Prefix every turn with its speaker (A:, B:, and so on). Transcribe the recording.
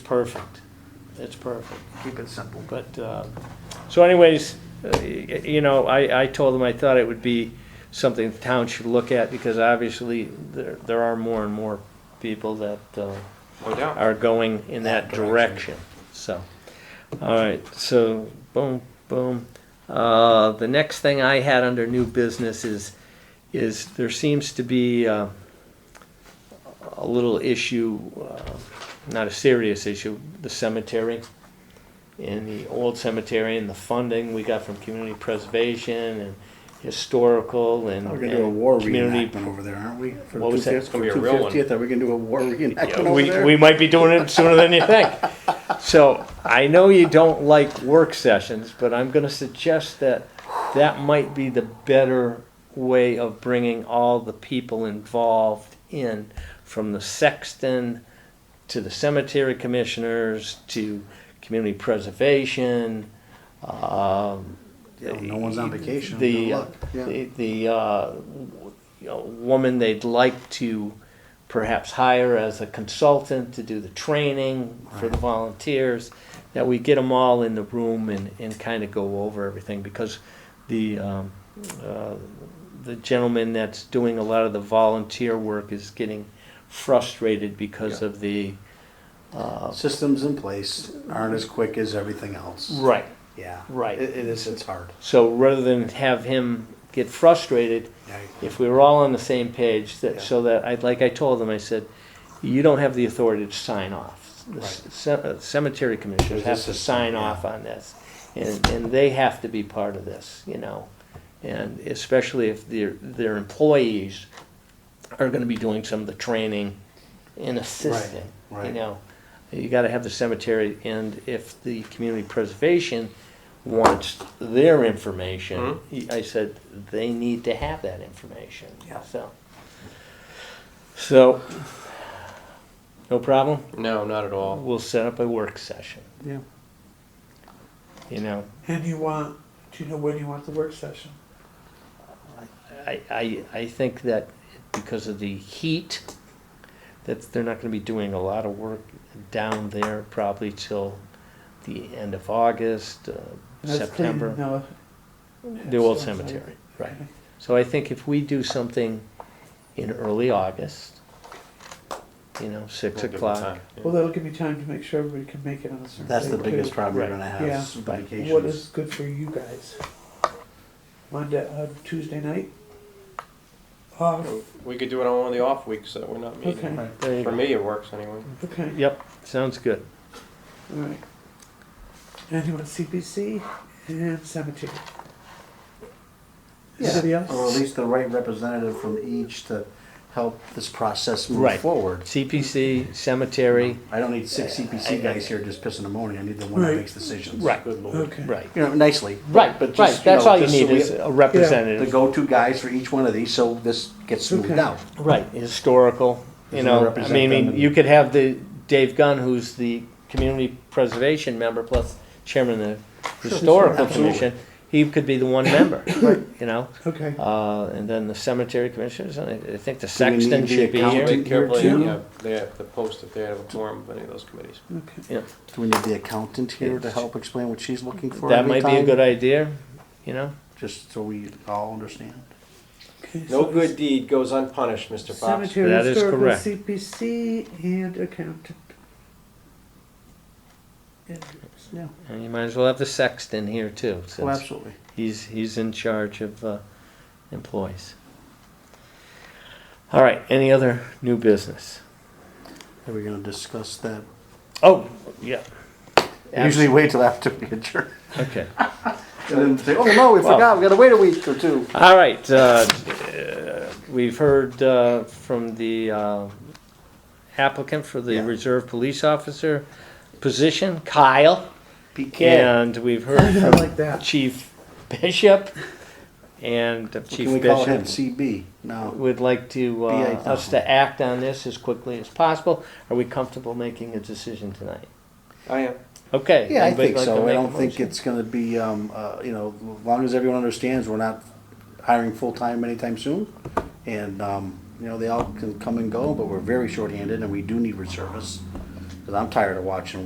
A: perfect. It's perfect.
B: Keep it simple.
A: But, uh, so anyways, uh, y- you know, I, I told them I thought it would be something the town should look at because obviously there, there are more and more people that uh,
C: No doubt.
A: are going in that
C: That
A: direction.
C: direction.
A: So, all right, so boom, boom. Uh, The next thing I had under new business is, is there seems to be uh, a little issue, uh, not a serious issue, the cemetery. In the old cemetery and the funding we got from community preservation and historical and.
B: We're gonna do a war
A: and community-
B: reenactment over there, aren't we? For
A: What was that?
B: 250
A: It's
C: gonna be a real one.
B: 250th, Are we gonna do a war reenactment
A: Yeah,
B: over
A: we,
B: there?
A: we might be doing it sooner than you think. So I know you don't like work sessions, but I'm gonna suggest that that might be the better way of bringing all the people involved in, from the sexton to the cemetery commissioners to community preservation, um.
B: Yeah, well, no one's on vacation,
A: The,
B: good luck.
A: uh,
B: Yeah.
A: the- the, uh, you know, woman they'd like to perhaps hire as a consultant to do the training for the volunteers, that we get them all in the room and, and kind of go over everything, because the, um, uh, the gentleman that's doing a lot of the volunteer work is getting frustrated because
C: Yeah.
A: of the, uh,
B: Systems in place aren't as quick as everything else.
A: right.
B: Yeah.
A: Right.
B: It, it is, it's hard.
A: So rather than have him get frustrated,
B: Yeah.
A: if we were all on the same page,
B: Yeah.
A: that, so that, I, like I told them, I said, you don't have the authority to sign off. The c- ce- uh, cemetery commissioners
B: There's a
A: have to
B: system,
A: sign
B: yeah.
A: off on this, and, and they have to be part of this, you know? And especially if their, their employees are gonna be doing some of the training and assisting, you
B: right.
A: know? You gotta have the cemetery, and if the community preservation wants their information,
B: Mm-hmm.
A: I said, they need to have that information,
B: Yeah.
A: so. So, no problem,
C: No, not at all.
A: we'll set up a work session,
B: Yeah.
A: you know,
D: And you want, do you know when you want the work session?
A: I, I, I think that because of the heat, that they're not gonna be doing a lot of work down there probably till the end of August, uh, September, the old cemetery, right. So I think if we do something in early August, you know, six
C: We'll give it
A: o'clock.
C: time. Yeah.
D: Well, that'll give me time to make sure everybody can make it on a certain
B: That's the
D: day, too.
B: biggest problem you're
A: Right.
B: gonna have
D: Yeah.
B: is
A: Right.
D: What
B: vacations.
D: is good for you guys? Monday, uh, Tuesday night? Off,
C: We could do it on one of the off weeks that we're not meeting.
D: okay,
B: Right.
A: There you
C: For
A: go.
C: me, it works anyway.
D: okay,
A: Yep, sounds good.
D: alright. And you want CPC and cemetery?
B: Yeah. Uh,
D: Anybody
B: Or at
D: else?
B: least the right representative from each to help this process move
A: Right.
B: forward.
A: CPC, cemetery,
B: I don't need six CPC guys here just pissing and moaning. I need the one that
D: Right.
B: makes decisions.
A: Right.
C: Good lord.
D: Okay.
A: right.
B: You know, nicely.
A: Right, but
B: but just,
A: right,
B: you
A: that's
B: know,
A: all you
B: just so
A: need
B: we-
A: is a
B: The
A: representative.
B: go-to guys for each one of these, so this gets smoothed
D: Okay.
B: out.
A: Right, historical, you
B: Doesn't
A: know, I
B: represent
A: mean, I
B: them.
A: mean, you could have the Dave Gunn, who's the community preservation member plus chairman of the historical
B: absolutely.
A: commission. He could be the one member, you know,
D: Okay,
A: uh, and then the cemetery commissioners, and I I think the
B: we need
A: sexton
B: the
A: should be
B: accountant?
A: here.
C: Wait carefully,
D: too?
C: yeah, they have to post if they have a quorum of any of those committees.
D: okay.
A: Yeah.
B: Do we need the accountant here to help explain what she's looking for?
A: That
B: every
A: might be a
B: time?
A: good idea, you know?
B: Just so we all understand.
D: Okay,
C: No
D: so
C: good deed goes unpunished, Mr. Fox.
D: Cemetery,
A: That is
D: historical,
A: correct.
D: CPC, and accountant. And-
B: Yeah.
A: And you might as well have the sexton here too,
B: Oh,
A: since
B: absolutely.
A: he's, he's in charge of uh, employees. All right, any other new business?
B: Are we gonna discuss that?
A: Oh, yeah.
B: Usually wait till after we adjourn.
A: Okay.
B: And then say, oh no, we
A: Well-
B: forgot, we gotta wait a week or two.
A: All right, uh, uh, we've heard uh, from the uh, applicant for the
B: Yeah.
A: reserve police officer position, Kyle.
B: PK.
A: And we've heard
D: I
A: from
D: like that.
A: Chief Bishop and
B: Can we
A: Chief
B: call him
A: Bishop
B: CB? No.
A: would like to, uh,
B: BA
A: us to act on this as quickly as possible. Are we comfortable making a decision tonight?
C: I am.
A: Okay.
B: Yeah, I
A: anybody
B: think
A: like to
B: so. I
A: make a
B: don't think
A: motion?
B: it's gonna be, um, uh, you know, as long as everyone understands, we're not hiring full-time anytime soon. And, um, you know, they all can come and go, but we're very shorthanded and we do need reservists. Cause I'm tired of watching